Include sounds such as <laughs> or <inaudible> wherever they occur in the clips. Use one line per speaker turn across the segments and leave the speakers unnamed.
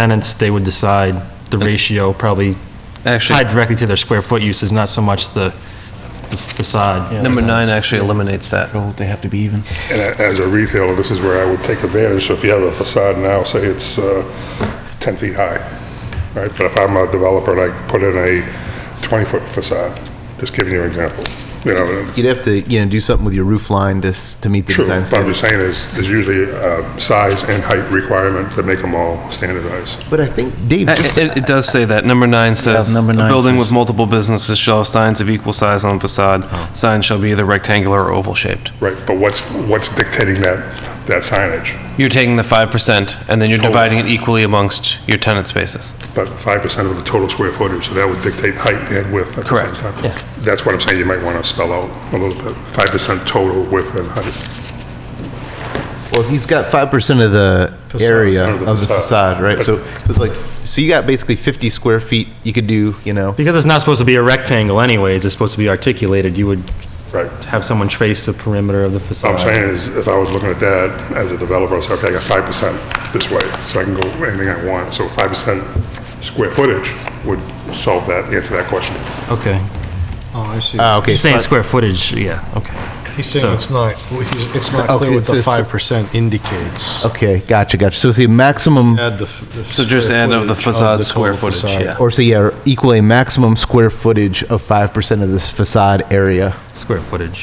tenants, they would decide the ratio, probably tied
Actually,
directly to their square foot uses, not so much the the facade.
number nine actually eliminates that.
They have to be even.
And a- as a retailer, this is where I would take advantage, so if you have a facade now, say it's uh, 10 feet high, right? But if I'm a developer and I put in a 20-foot facade, just giving you an example, you know, it's
You'd have to, you know, do something with your roof line to, s- to meet the
true.
design
What I'm
standards.
just saying is, there's usually uh, size and height requirements that make them all standardized.
But I think, Dave,
It, it- it does say that. Number nine says,
number
"A
nine
building with
says-
multiple businesses shall have signs of equal size on facade.
Oh.
Signs shall be either rectangular or oval shaped."
Right, but what's, what's dictating that, that signage?
You're taking the 5% and then
Oh.
you're dividing it equally amongst your tenant spaces.
But 5% of the total square footage, so that would dictate height and width at the same
Correct.
time. That's what I'm saying, you might want to spell out a little bit, 5% total width and height.
well, if he's got five percent of the area
Facade.
of the facade, right? So, so it's like, so you got basically fifty square feet, you could do, you know,
Because it's not supposed to be a rectangle anyways, it's supposed to be articulated, you would
Right.
have someone trace the perimeter of the
What
facade.
Oh,
I'm saying is, if I was looking at that as a developer, I'd say, okay, I got 5% this way, so I can go anything I want. So 5% square footage would solve that, answer that question.
Okay.
Oh, I see.
ah, okay.
You're saying
but-
square footage, yeah, okay.
He's saying it's not, he's- it's not
Okay,
clear what
it's-
the
it's-
five percent indicates.
Okay, gotcha, gotcha. So it's the maximum,
Add the f- the
So just
square
add of the
footage
facade
the
square
total
footage,
facade.
yeah.
or so yeah, equal a maximum square footage of five percent of this facade area.
Square footage.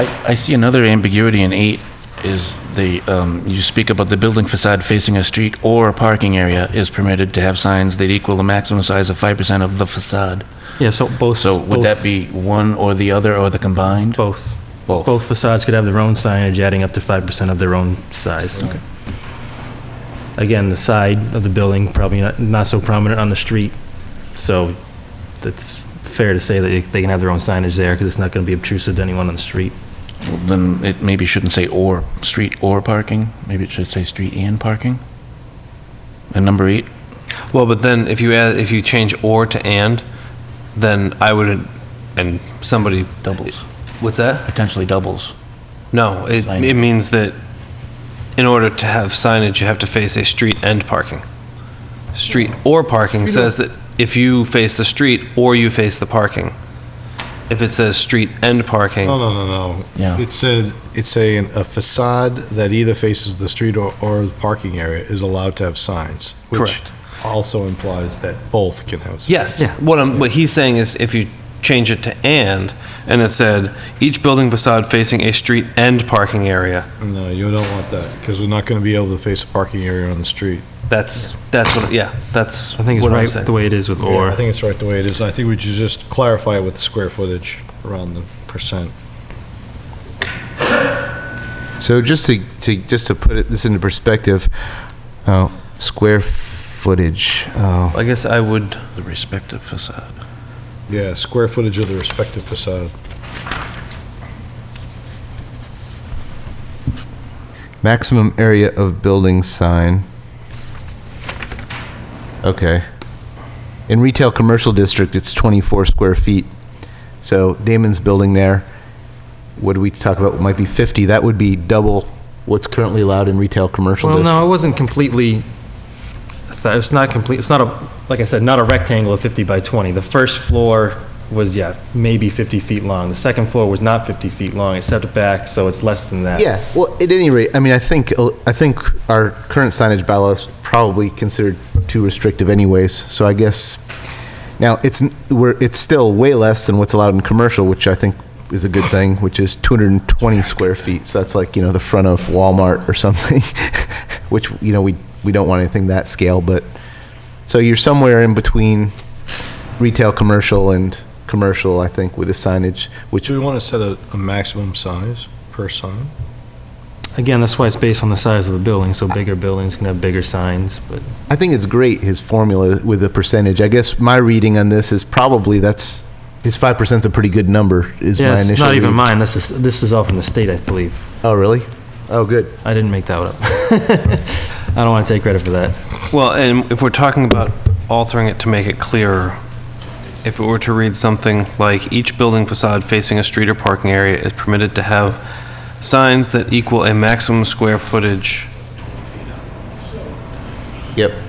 I, I see another ambiguity in eight is the, um, you speak about the building facade facing a street or a parking area is permitted to have signs that equal the maximum size of 5% of the facade.
Yeah, so both.
So would that be one or the other or the combined?
Both.
Both.
Both facades could have their own signage adding up to 5% of their own size. Again, the side of the building, probably not, not so prominent on the street, so that's fair to say that they- they can have their own signage there because it's not going to be obtrusive to anyone on the street.
Then it maybe shouldn't say or, street or parking. Maybe it should say street and parking. And number eight,
Well, but then if you add, if you change or to and, then I would, and somebody.
doubles,
What's
Uh,
that?
potentially doubles.
No, it,
Signage.
it means that in order to have signage, you have to face a street and parking. Street or parking says that if you face the street or you face the parking. If it says street and
No,
parking,
no, no, no.
Yeah.
It said, it's saying a facade that either faces the street or, or the parking area is allowed to have signs. Which
Correct.
also implies that both can have. signs.
yes, what I'm, what he's saying is if you change it to and, and it said, each building facade facing a street and parking area,
No, uh, you don't want that, because we're not gonna be able to face a parking area on the street.
that's, that's what, yeah, that's
I think it's
what I'm
right
saying.
the way it is with
Yeah, I
or.
think it's right the way it is. I think we should just clarify it with the square footage around the percent.
So just to, to, just to put it, this into perspective, oh, square footage, oh.
I guess I would,
The respective facade.
Yeah, square footage of the respective facade.
Maximum area of building sign. Okay. In retail commercial district, it's 24 square feet. So Damon's building there, what do we talk about, might be 50, that would be double what's currently allowed in retail commercial
Well,
district.
no, it wasn't completely, it's not complete, it's not a, like I said, not a rectangle of 50 by 20. The first floor was, yeah, maybe 50 feet long. The second floor was not 50 feet long, it stepped back, so it's less than that.
Yeah, well, at any rate, I mean, I think, uh, I think our current signage bylaw is probably considered too restrictive anyways, so I guess, now, it's, n- we're, it's still way less than what's allowed in commercial, which I think is a good thing, which is 220 square feet, so that's like, you know, the front of Walmart or <laughs> something, which, you know, we, we don't want anything that scale, but, so you're somewhere in between retail, commercial, and commercial, I think, with the signage, which
Do we want to set a, a maximum size per sign?
Again, that's why it's based on the size of the building, so bigger buildings can have bigger signs, but
I think it's great, his formula with the percentage. I guess my reading on this is probably that's, his 5% is a pretty good number, is my
yeah,
initial
it's not even
read.
mine. This is this is all from the state, I believe.
Oh, really? Oh, good.
I didn't make that up. <laughs> I don't want to take credit for that.
Well, and if we're talking about altering it to make it clearer, if it were to read something like, each building facade facing a street or parking area is permitted to have signs that equal a maximum square footage
Yep.